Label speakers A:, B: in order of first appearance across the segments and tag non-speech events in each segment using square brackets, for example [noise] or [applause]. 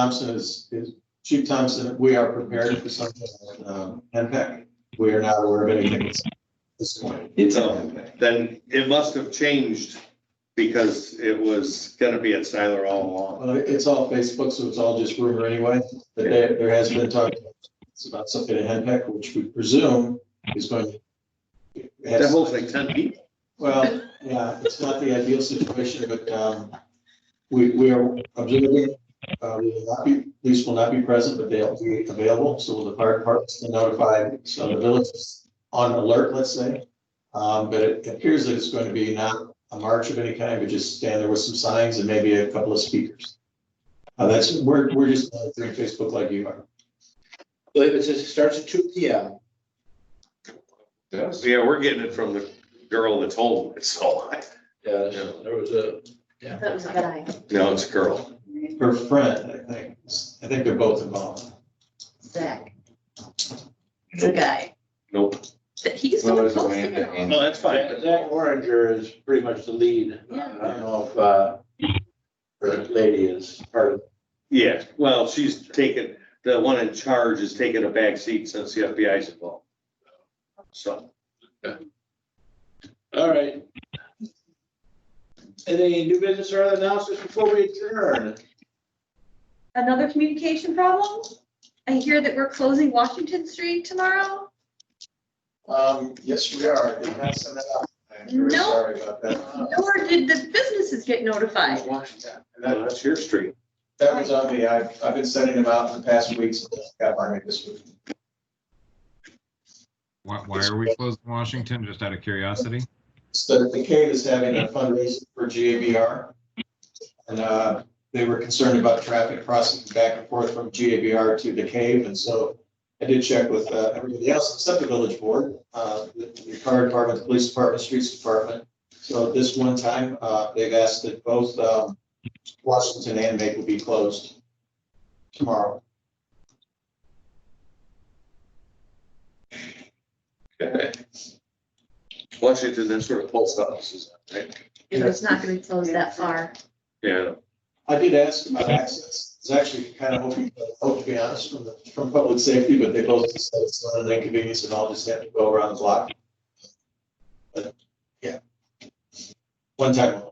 A: Thompson is, is, Chief Thompson, we are prepared for something, um, NPEC. We are not aware of anything at this point.
B: It's all Then it must have changed because it was gonna be at Siler all along.
A: Well, Uh, it's all Facebook, so it's all just rumor anyway, but there, there has been talk it's about something at NPEC, which we presume is going to.
B: That holds like ten people.
A: Well, yeah, it's not the ideal situation, but, um, we, we are observing, uh, we will not be, police will not be present, but they'll be available, so will the fire department's been notified, so the village is on alert, let's say. Um, but it appears that it's going to be not a march of any kind, but just stand there with some signs and maybe a couple of speakers. Uh, that's, we're, we're just uh, doing Facebook like you are.
C: So if it says it starts at two P M,
B: Yeah, we're getting it from the girl that's home. It's all I,
C: yeah, there was a, yeah.
D: That was a guy.
B: no, it's a girl.
A: Her friend, I think, I think they're both involved.
D: Zach. The guy
B: Nope.
D: that he's the
E: Well,
D: one
E: there's a way
D: posting
E: into
D: it all.
E: and-
B: No, that's
C: Zach
B: fine.
C: Zach Oringer is pretty much the lead. I
D: Yeah.
C: don't know if, uh, her lady is part of,
B: Yeah, well, she's taken, the one in charge is taking a back seat since the FBI's involved. So,
C: all right. Any new business or other announcements before we adjourn?
D: Another communication problem? I hear that we're closing Washington Street tomorrow.
A: Um, yes, we are. Did not send that out. I'm very
D: No.
A: sorry about that.
D: Nor did the businesses get notified.
A: Washington. And
B: no,
A: that,
B: that's your street.
A: that was on me. I've, I've been sending them out for the past weeks. Got by me this week.
E: Why, why are we closed in Washington? Just out of curiosity?
A: So the cave is having a fundraiser for GABR. And, uh, they were concerned about traffic crossing back and forth from GABR to the cave. And so I did check with, uh, everybody else except the village board, uh, the, the fire department, the police department, streets department. So this one time, uh, they've asked that both, um, Washington and Maple be closed tomorrow.
B: [laughs] Washington, then sort of post offices, right?
D: It was not gonna be closed that far.
B: Yeah,
A: I did ask about access. I was actually kind of hoping, hope oh, to be honest, from the, from public safety, but they both just said it's not an inconvenience and I'll just have to go around the block. But, yeah. One time.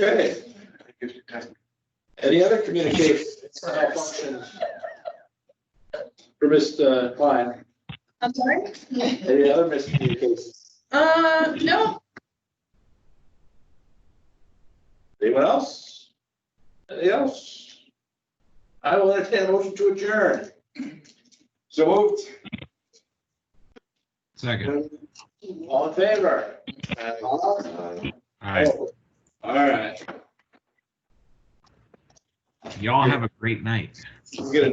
C: Okay, any other communication, malfunctions? For Mr. Klein,
D: I'm sorry?
C: any other miscommunications?
D: Uh, no,
C: Anyone else? Anything else? I will entertain a motion to adjourn. So moved.
E: Second.
C: All in favor?
E: All right.
C: All right.
E: Y'all have a great night.
B: I'm gonna